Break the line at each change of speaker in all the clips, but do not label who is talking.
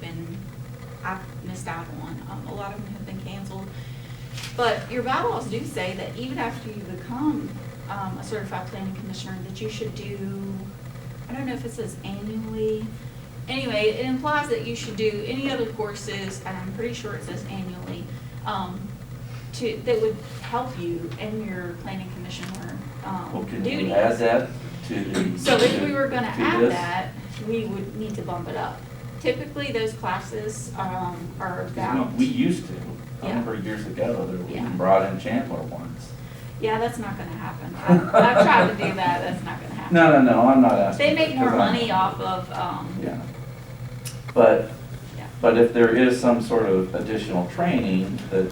been, I've missed out on. Um, A lot of them have been canceled. But your bylaws do say that even after you become um, a certified planning commissioner, that you should do, I don't know if it says annually. Anyway, it implies that you should do any other courses, and I'm pretty sure it says annually, um, to, that would help you in your planning commissioner um,
Well, can
duties.
you add that to the?
So if we were gonna
to
add
this?
that, we would need to bump it up. Typically, those classes, um, are
'Cause, you
about.
know, We used to, I
Yeah.
remember years ago, that we
Yeah.
brought in Chandler once.
Yeah, that's not gonna happen. I've I've tried to do that, that's not gonna happen.
No, no, no, I'm not asking.
They make more
because I'm-
money off of, um,
Yeah. But,
Yeah.
but if there is some sort of additional training that,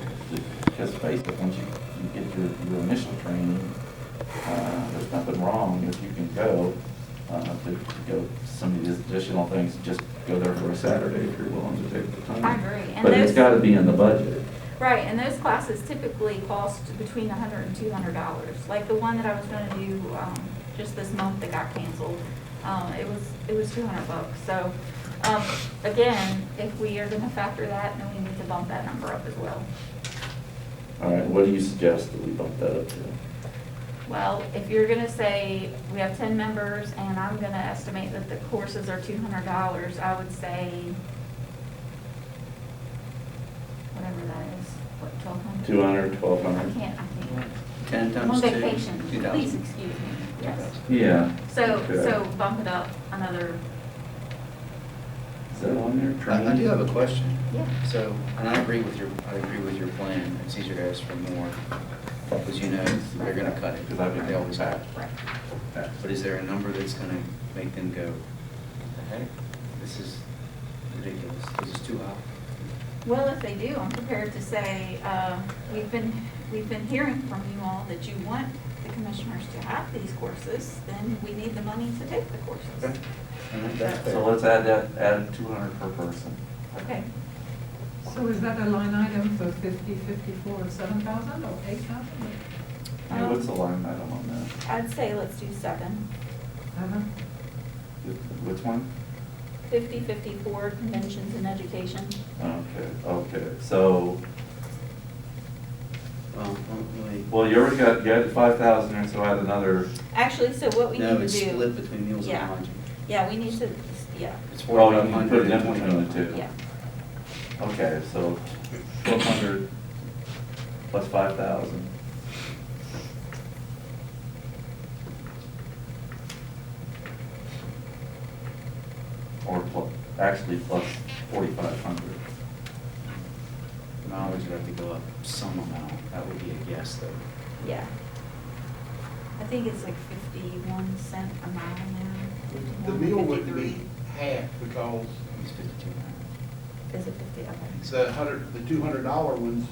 because basically, once you, you get your, your initial training, uh, there's nothing wrong if you can go, uh, to to go to some of these additional things, just go there for a Saturday if you're willing to take the time.
I agree. And
But it's
those-
gotta be in the budget.
right, and those classes typically cost between a hundred and two hundred dollars. Like the one that I was gonna do, um, just this month that got canceled, um, it was, it was two hundred bucks. So, um, again, if we are gonna factor that, then we need to bump that number up as well.
All right, what do you suggest that we bump that up to?
Well, if you're gonna say, we have ten members, and I'm gonna estimate that the courses are two hundred dollars, I would say, whatever that is, what, twelve hundred?
Two hundred, twelve
I
hundred?
can't, I can't.
10
I'm on
times 2.
vacation, please excuse me, yes.
Yeah.
So,
Okay.
so bump it up another,
Is that on there, training?
I I do have a question.
yeah.
So, and I agree with your, I agree with your plan, it's easier to ask for more, because you know they're gonna cut it,
Because I've been-
they always have.
Right.
But is there a number that's gonna make them go, "The heck, this is ridiculous, this is too high?
Well, if they do, I'm prepared to say, uh, we've been, we've been hearing from you all that you want the commissioners to have these courses, then we need the money to take the courses.
And that's
So
fair.
let's add that, add two hundred per person.
Okay,
So is that a line item for fifty, fifty-four, seven thousand or eight thousand?
Hey, What's the line item on that?
I'd say let's do seven.
Uh-huh.
Which one?
Fifty, fifty-four, conventions and education.
Okay, okay, so,
Well, let me-
well, you already got, you had five thousand there, so add another,
Actually, so what we need to do.
No, it's split between meals and
Yeah.
lodging.
Yeah, we need to, yeah,
It's
well, you can
4,500
put it in
and
between the
2,500.
two.
yeah.
Okay, so twelve hundred plus five thousand. Or plu- actually plus forty-five hundred.
Mileage would have to go up some amount, that would be a guess though.
Yeah. I think it's like fifty-one cent a mile now.
The
51,
meal would be
53.
half because
It's 52 now.
Is it fifty, okay.
the hundred, the two hundred dollar ones,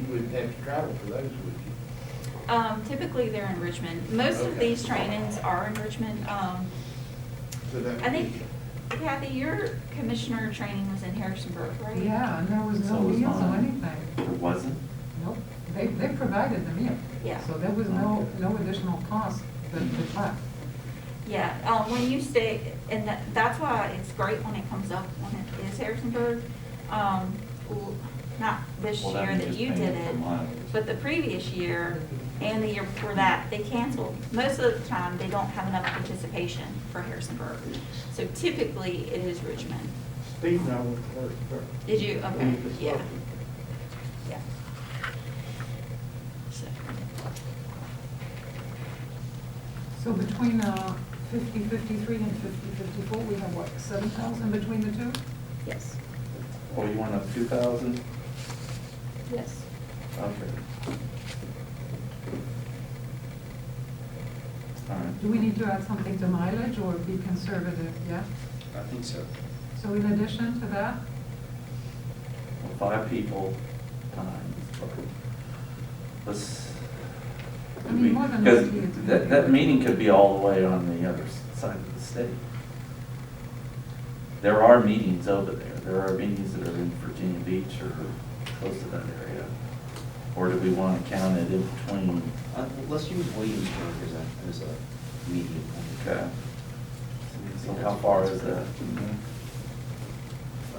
you wouldn't have to travel for those, would you?
Um, typically, they're in Richmond. Most of
Okay.
these trainings are in Richmond. Um,
So that
I
would
think,
be-
Kathy, your commissioner training was in Harrisonburg, right?
Yeah, and there was
So
no
was
meals or
mine.
anything.
It wasn't?
Nope, they, they provided the meal.
Yeah.
So there was no, no additional cost but the class.
Yeah, um, when you stay, and that, that's why it's great when it comes up, when it is Harrisonburg. Um, l- not this
Well, that
year
means
that
just
you
paying
did
for
it,
mileage.
but the previous year and the year before that, they canceled. Most of the time, they don't have enough participation for Harrisonburg. So typically, it is Richmond.
Steve and I went to Harrisburg.
Did you? Okay,
We just
yeah,
left it.
yeah. So,
So between uh, fifty, fifty-three and fifty, fifty-four, we have what, seven thousand between the two?
Yes,
Or Oh, you want up two thousand?
yes.
Okay. All right.
Do we need to add something to mileage or be conservative, yeah?
I think so.
So in addition to that,
Five people times, let's.
I mean, more than
Because
likely it's-
that, that meeting could be all the way on the other s- side of the state. There are meetings over there, there are meetings that are in Virginia Beach or close to that area. Or do we want to count it in between?
Uh, Let's use Williamsburg as a, as a median. Mm-hmm.
Okay. So how far is that?